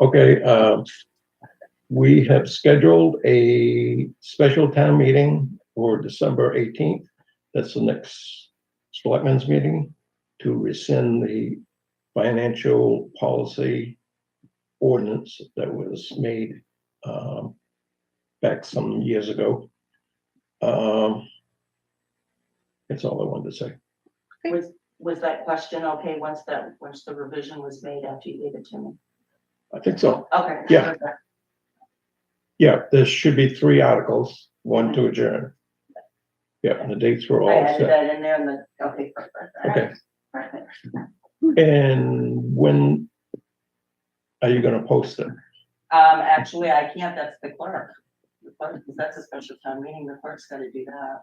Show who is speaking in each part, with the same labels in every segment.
Speaker 1: Okay, uh, we have scheduled a special town meeting for December eighteenth. That's the next selectmen's meeting to rescind the financial policy ordinance that was made um, back some years ago. Um, That's all I wanted to say.
Speaker 2: Was, was that question okay once that, once the revision was made after you gave it to me?
Speaker 1: I think so.
Speaker 2: Okay.
Speaker 1: Yeah. Yeah, there should be three articles, one to adjourn. Yeah, and the dates were
Speaker 2: I
Speaker 1: all
Speaker 2: added
Speaker 1: set.
Speaker 2: that in there and the, okay. perfect, all right,
Speaker 1: Okay,
Speaker 2: perfect.
Speaker 1: and when are you gonna post it?
Speaker 2: Um, actually, I can't, that's the clerk. The clerk, because that's a special town meeting, the clerk's gotta do that.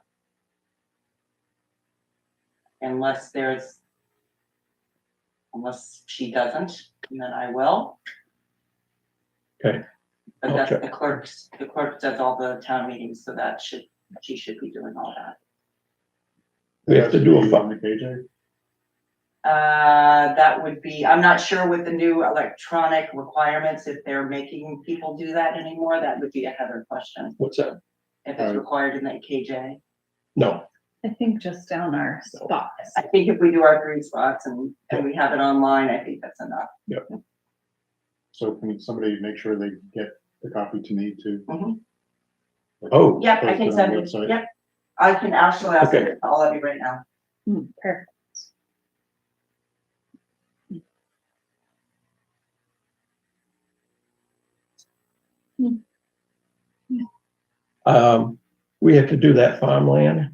Speaker 2: Unless there's, unless she doesn't, then I will.
Speaker 1: Okay.
Speaker 2: But
Speaker 1: I'll
Speaker 2: that's
Speaker 1: check.
Speaker 2: the clerk's, the clerk does all the town meetings, so that should, she should be doing all that.
Speaker 1: We have to do a fun,
Speaker 3: phone the KJ.
Speaker 2: Uh, that would be, I'm not sure with the new electronic requirements, if they're making people do that anymore, that would be a Heather question.
Speaker 1: what's that?
Speaker 2: If it's
Speaker 3: Right.
Speaker 2: required in the KJ.
Speaker 1: No,
Speaker 4: I think just down our spots.
Speaker 2: I think if we do our three spots and, and we have it online, I think that's enough.
Speaker 3: So can somebody make sure they get the copy to me too?
Speaker 2: Mhm.
Speaker 1: oh,
Speaker 2: Yep, I
Speaker 3: Post it
Speaker 2: can
Speaker 3: on
Speaker 2: send
Speaker 3: the
Speaker 2: it,
Speaker 3: website.
Speaker 2: yep. I can actually ask
Speaker 1: Okay.
Speaker 2: it all of you right now.
Speaker 4: Hmm, Perfect.
Speaker 1: um, we have to do that farmland.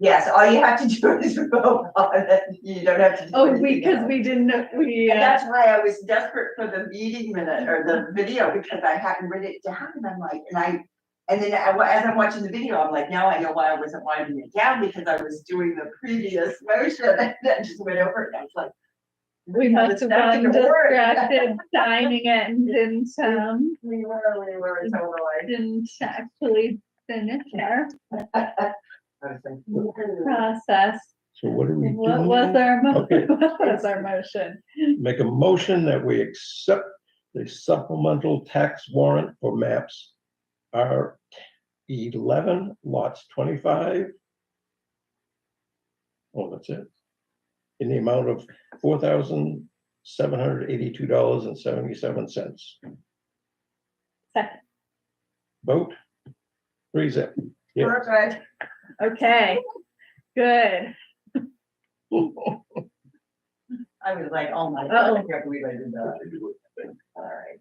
Speaker 2: Yes, all you have to do is vote on it. You don't have to. do
Speaker 4: Oh,
Speaker 2: anything
Speaker 4: we, cause
Speaker 2: else.
Speaker 4: we didn't, know- we,
Speaker 2: And
Speaker 4: uh,
Speaker 2: that's why I was desperate for the meeting minute or the video because I hadn't read it down and I'm like, and I. And then I, as I'm watching the video, I'm like, now I know why I wasn't winding it down because I was doing the previous motion and then just went over it. and I was like.
Speaker 4: we
Speaker 2: how
Speaker 4: must
Speaker 2: this
Speaker 4: have
Speaker 2: stuff
Speaker 4: gotten
Speaker 2: didn't work.
Speaker 4: distracted signing it and didn't, um,
Speaker 2: We were, we were totally.
Speaker 4: didn't actually finish our
Speaker 2: I was like,
Speaker 4: process.
Speaker 1: So what do we
Speaker 4: What
Speaker 1: do?
Speaker 4: was our, mo-
Speaker 1: Mm-hmm. Okay.
Speaker 4: what was our motion?
Speaker 1: Make a motion that we accept the supplemental tax warrant for maps are eleven lots twenty-five. Oh, that's it. In the amount of four thousand seven hundred eighty-two dollars and seventy-seven cents.
Speaker 4: Second.
Speaker 1: Vote. Three zip. Yeah.
Speaker 2: Perfect.
Speaker 4: Okay, good.
Speaker 2: I was like, oh my
Speaker 4: Uh-oh.
Speaker 2: god, I can't believe I did that. All right.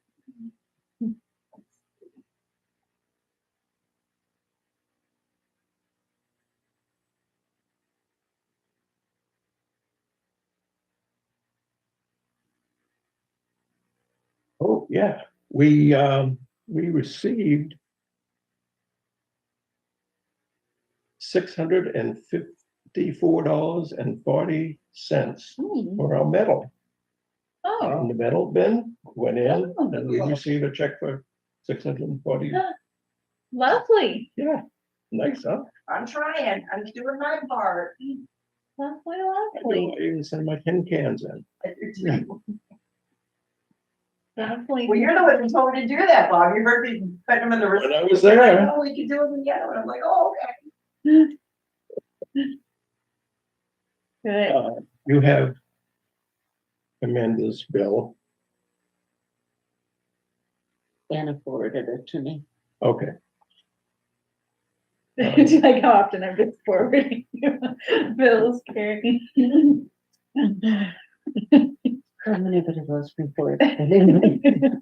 Speaker 1: Oh, yeah, we, um, we received six hundred and fifty-four dollars and forty cents
Speaker 4: Hmm,
Speaker 1: for our metal.
Speaker 4: Oh,
Speaker 1: And the metal bin went in and we received a check for six hundred and forty.
Speaker 4: lovely,
Speaker 1: Yeah, nice, huh?
Speaker 2: I'm trying, I'm doing my part.
Speaker 4: lovely,
Speaker 1: I
Speaker 4: lovely,
Speaker 1: don't even send my tin cans in.
Speaker 4: lovely.
Speaker 2: Well, you're the one who told me to do that, Bob. You heard me putting them in the.
Speaker 1: When I was
Speaker 2: receipt.
Speaker 1: there.
Speaker 2: Like, Oh, we can do them together. And I'm like, oh, okay.
Speaker 4: Good.
Speaker 1: Uh, You have Amanda's bill.
Speaker 5: Anna forwarded it to me.
Speaker 1: Okay,
Speaker 4: Do you like how often I'm just forwarding you bills, Carrie?
Speaker 5: How many of it was before? I didn't make it.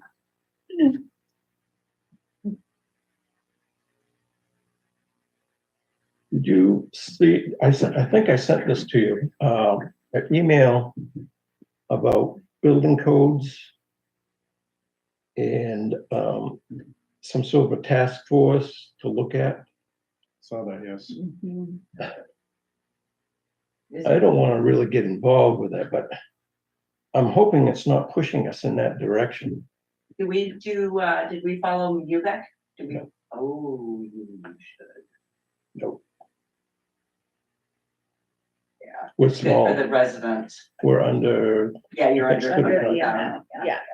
Speaker 1: did you see, I sent, I think I sent this to you, um, an email about building codes and, um, some sort of a task force to look at.
Speaker 3: Saw that, yes.
Speaker 4: Mhm.
Speaker 2: This-
Speaker 1: I don't want to really get involved with it, but I'm hoping it's not pushing us in that direction.
Speaker 2: Did we do, uh, did we follow you back? Did we?
Speaker 1: No.
Speaker 2: Oh, you should.
Speaker 1: No,
Speaker 2: Yeah.
Speaker 1: we're
Speaker 2: Good for
Speaker 1: small,
Speaker 2: the resident.
Speaker 1: we're under
Speaker 2: Yeah, you're
Speaker 1: That's
Speaker 2: under.
Speaker 1: good.
Speaker 2: okay,
Speaker 1: Yeah.
Speaker 2: yeah.
Speaker 4: uh, Yeah.